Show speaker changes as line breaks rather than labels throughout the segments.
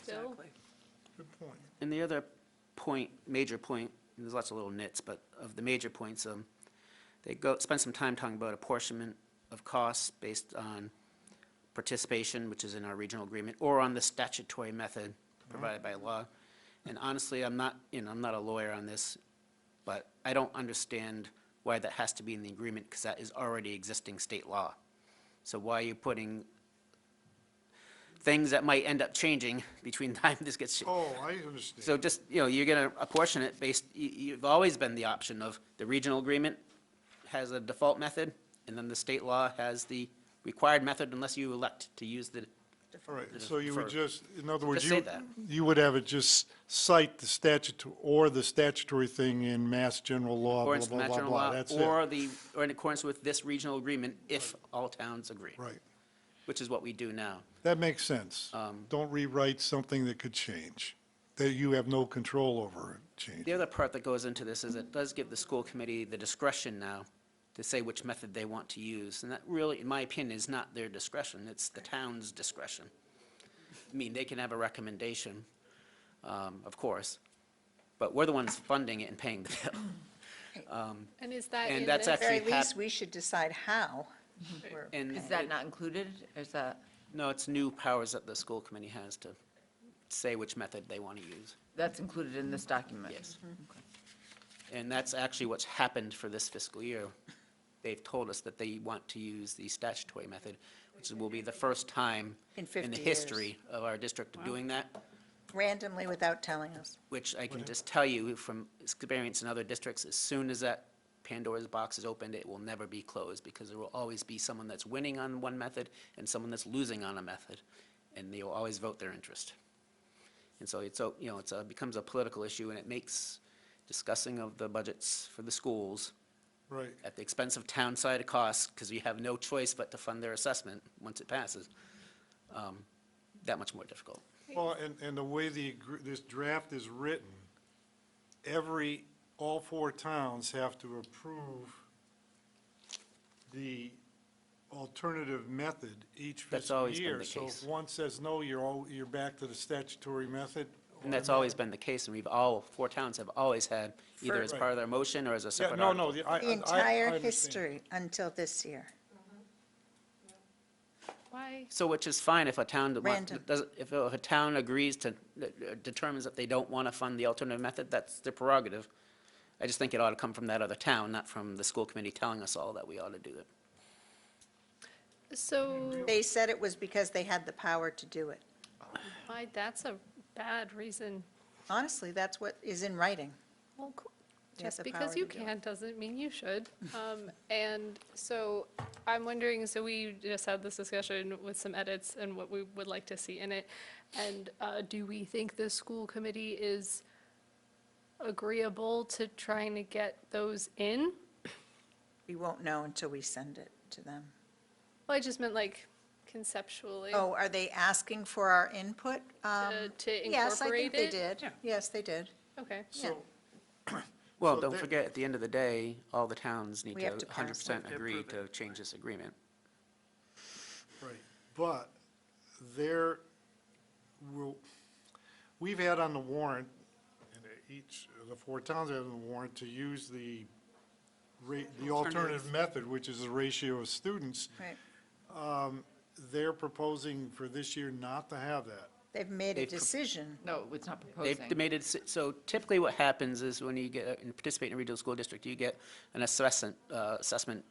bill.
Good point.
And the other point, major point, and there's lots of little nits, but of the major points, um, they go, spend some time talking about apportionment of costs based on participation, which is in our regional agreement, or on the statutory method provided by law. And honestly, I'm not, you know, I'm not a lawyer on this, but I don't understand why that has to be in the agreement, because that is already existing state law. So why are you putting things that might end up changing between time this gets?
Oh, I
So
understand.
just, you know, you're going to apportion it based, you, you've always been the option of the regional agreement has a default method, and then the state law has the required method unless you elect to use the,
All right, so you would
for-
just, in other words,
Just say
you,
that.
you would have it just cite the statute or the statutory thing in mass general law, blah,
accordance with
blah,
Mass
blah,
General
blah.
law,
That's it.
or the, or in accordance with this regional agreement, if all towns agree.
Right.
Which is what we do now.
That makes sense.
Um,
Don't rewrite something that could change, that you have no control over change.
The other part that goes into this is it does give the school committee the discretion now to say which method they want to use, and that really, in my opinion, is not their discretion, it's the town's discretion. I mean, they can have a recommendation, um, of course, but we're the ones funding it and paying the bill.
And is that
And
in
that's
this?
actually-
very
hap-
least, we should decide how. we're-
And,
Is that not included? Is that,
no, it's new powers that the school committee has to say which method they want to use.
that's included in this document?
Yes.
Mm-hmm.
And that's actually what's happened for this fiscal year. They've told us that they want to use the statutory method, which will be the first time
In
in
50
the
years.
history of our district of doing that,
Randomly without telling us.
which I can just tell you from experience in other districts, as soon as that Pandora's box is opened, it will never be closed because there will always be someone that's winning on one method and someone that's losing on a method, and they will always vote their interest. And so it's, a- you know, it's a, becomes a political issue, and it makes discussing of the budgets for the schools
Right.
at the expense of town side costs, because we have no choice but to fund their assessment once it passes, um, that much more difficult.
Well, and, and the way the, agr- this draft is written, every, all four towns have to approve the alternative method each
That's
fiscal
always been
year.
the
So if
case.
one says no, you're all, you're back to the statutory method.
And that's always been the case, and we've all, four towns have always had, either as part of their motion or as a
Yeah,
separate
no,
article.
no, the- I, I- I
The entire
understand.
history until this year.
Why,
So which is fine if a town that wants,
Random.
does- if a if a town agrees to, uh, determines that they don't want to fund the alternative method, that's their prerogative. I just think it ought to come from that other town, not from the school committee telling us all that we ought to do it.
so,
They said it was because they had the power to do it.
why, that's a bad reason.
Honestly, that's what is in writing.
Well, c-
They have
just
the
because
power
you
to do it.
can doesn't mean you should. Um, And so I'm wondering, so we just had this discussion with some edits and what we would like to see in it. And uh, do we think the school committee is agreeable to trying to get those in?
We won't know until we send it to them.
Well, I just meant like conceptually.
Oh, are they asking for our input? Um,
To- to
Yes, I think
incorporate
they
it?
did. Yes, they did.
Okay.
So,
Well,
So
don't
there-
forget, at the end of the day, all the towns need
We
to
have to pass
hundred percent
something.
agree to change this agreement.
right, but there will, we've had on the warrant, and each of the four towns have on the warrant to use the ra, the alternative method, which is the ratio of students.
Right.
They're proposing for this year not to have that.
They've made a
They've pro-
decision.
No, it's not
They've
proposing.
made it, s- so typically what happens is when you get, and participate in a regional school district, you get an assessment, uh, assessment,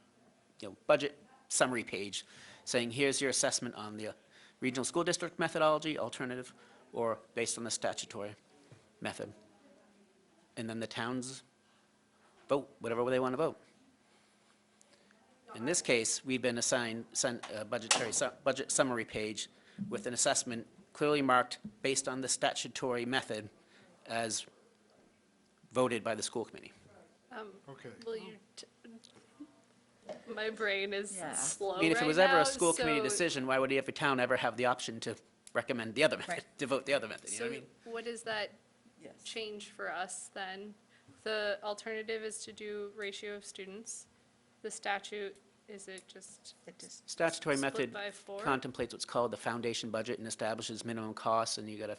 you know, budget summary page saying, here's your assessment on the regional school district methodology, alternative, or based on the statutory method. And then the towns vote, whatever way they want to vote. In this case, we've been assigned sun- a budgetary, su- budget summary page with an assessment clearly marked based on the statutory method as voted by the school committee.
Okay.
Will you, t- my brain is
Yeah.
slow
I mean, if it
right
was ever
now,
a school committee
so-
decision, why would every town ever have the option to recommend the other method,
Right.
to vote the other method, you know
So
what I mean?
what does that change for us then? The alternative is to do ratio of students. The statute, is it just,
It just
Statutory
Split
method
by four?
contemplates what's called the foundation budget and establishes minimum costs, and you got to